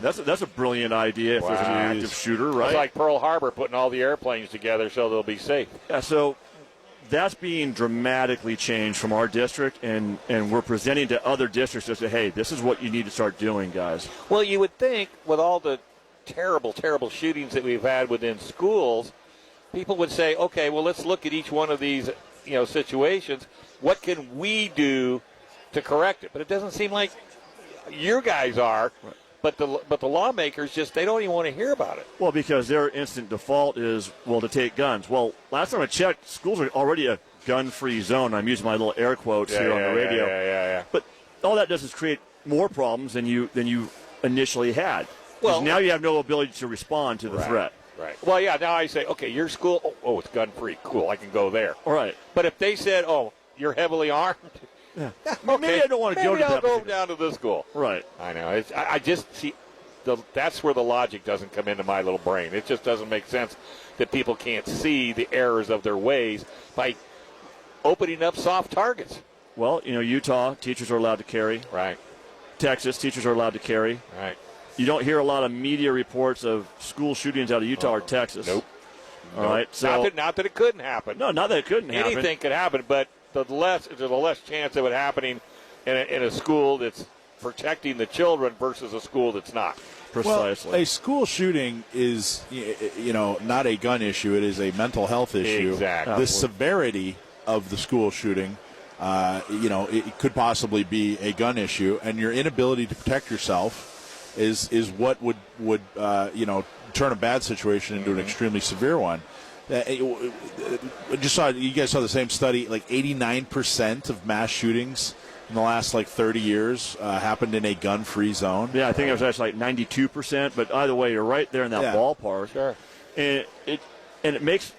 That's a, that's a brilliant idea if there's an Wow. active shooter, It's right? like Pearl Harbor putting all the airplanes together so they'll be safe. Yeah, uh, so that's being dramatically changed from our district, and, and we're presenting to other districts to say, hey, this is what you need to start doing, guys. Well, you would think with all the terrible, terrible shootings that we've had within schools, people would say, okay, well, let's look at each one of these, you know, situations. What can we do to correct it? But it doesn't seem like your guys are. But the but the lawmakers just they don't even want to hear about it. Well, because their instant default is, well, to take guns. Well, last time I checked, schools are already a gun free zone. I'm using my little air quotes here on the radio. yeah, But all that does is create more problems than you than you initially had. 'Cause Well- now you have no ability to respond to the threat. Right. Well, yeah. Now I say, okay, your school. Oh, oh it's gun free. Cool. I can go there. All right. But if they said, "Oh, you're heavily armed," okay, Maybe I don't wanna go maybe to I'll that go particular- down to the school. Right. I know. It's, I, I just see the, that's where the logic doesn't come into my little brain. It just doesn't make sense that people can't see the errors of their ways by opening up soft targets. Well, you know, Utah teachers are allowed to carry. Right. Texas teachers are allowed to carry. Right. You don't hear a lot of media reports of school shootings out of Utah or Texas. Nope. All right. not So that not that it couldn't happen. no, not that it couldn't happen. Anything could happen, but the less there's a less chance of it happening in a, in a school that's protecting the children versus a school that's not. precisely. Well, a school shooting is, y- y- you know, not a gun issue. It is a mental health issue. Exactly. The severity of the school shooting, uh, you know, it, it could possibly be a gun issue, and your inability to protect yourself is is what would would uh, you know turn a bad situation into an extremely severe one. Uh, it- I just saw you guys saw the same study. Like 89% of mass shootings in the last like 30 years uh, happened in a gun-free zone. yeah, I think it was actually like ninety-two percent. But either way, you're right there in that Yeah. ballpark. Sure. And it and it makes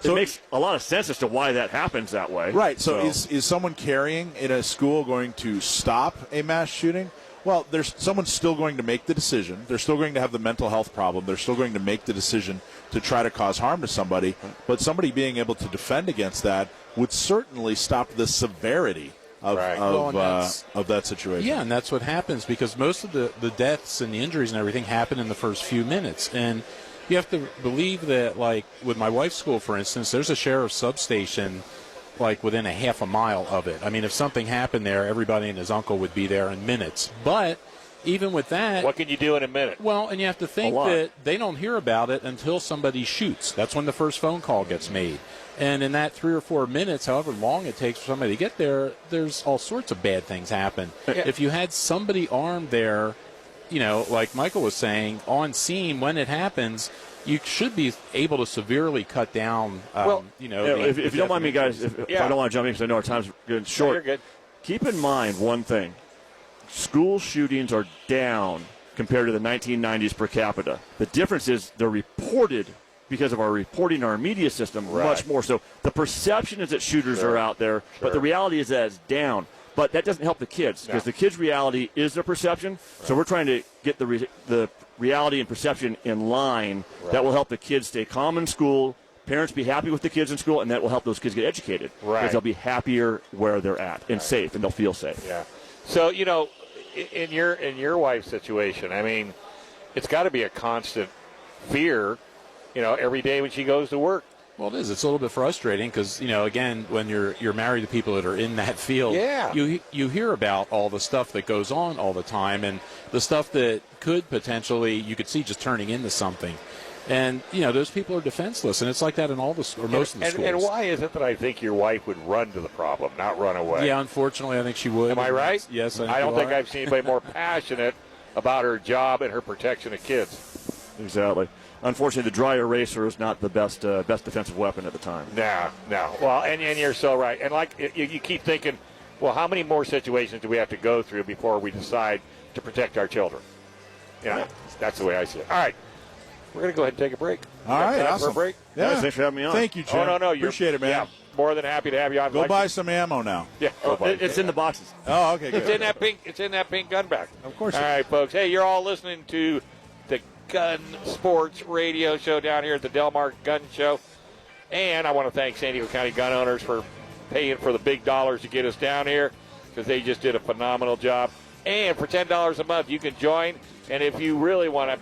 So- it makes a lot of sense as to why that happens that way. Right. So, is is someone carrying in a school going to stop a mass shooting? Well, there's someone's still going to make the decision. They're still going to have the mental health problem. They're still going to make the decision to try to cause harm to somebody. But somebody being able to defend against that would certainly stop the severity of Right. of, Well, and uh, that's- of that situation. Yeah, and that's what happens because most of the, the deaths and the injuries and everything happen in the first few minutes. And you have to believe that, like, with my wife's school, for instance, there's a sheriff's substation, like, within a half a mile of it. I mean, if something happened there, everybody and his uncle would be there in minutes. But even with that. What can you do in a minute? Well, and you have to think lot. that they don't hear about it until somebody shoots. That's when the first phone call gets made. And in that three or four minutes, however long it takes for somebody to get there, there's all sorts of bad things happen. If you had somebody armed there, you know, like Michael was saying, on scene when it happens, you should be able to severely cut down. Um, Well, you know, Yeah, the- if, if the you don't mind me, death guys, if, if Yeah. I don't want to jump in because I know our time's getting No, short. you're good. Keep in mind one thing: school shootings are down compared to the 1990s per capita. The difference is they're reported because of our reporting, our media system, much more. So the perception is that shooters are out there, but the reality is that it's down. But that doesn't help the kids because the kids' reality is their perception. So we're trying to get the re- the reality and perception in line. That will help the kids stay calm in school. Parents be happy with the kids in school, and that will help those kids get educated Right. because they'll be happier where they're at and safe, and they'll feel safe. Yeah. So you know, i- in your in your wife's situation, I mean, it's got to be a constant fear. You know, every day when she goes to work. Well, it is. It's a little bit frustrating because you know, again, when you're you're married to people that are in that field, Yeah. you you hear about all the stuff that goes on all the time, and the stuff that could potentially you could see just turning into something, and you know, those people are defenseless, and it's like that in all the s- or most and, of the and, schools. and why is it that I think your wife would run to the problem, not run away? Yeah, unfortunately, I think she would. Am I right? Yes, I, think I don't you think are. I've seen anybody more passionate about her job and her protection of kids. Exactly. Unfortunately, the dry eraser is not the best uh, best defensive weapon at the time. No, no. Well, and, and you're so right. And like you, you keep thinking, well, how many more situations do we have to go through before we decide to protect our children? You know, that's the way I see it. All right, we're gonna go ahead and take a break. All Got right. time for a Awesome. break? Yeah. Guys, thanks for having me on. Thank you, Jim. Oh no, no, you're- appreciate it, man. Yeah, more than happy to have you on. Go Like- buy some ammo now. Yeah, Oh, it- it's in the boxes. Oh, okay. It's in Good. that pink. It's in that pink gun bag. Of course All it is. right, folks. Hey, you're all listening to the Gun Sports Radio Show down here at the Delmar Gun Show, and I want to thank San Diego County gun owners for paying for the big dollars to get us down here because they just did a phenomenal job. And for $10 a month, you can join. And if you really want to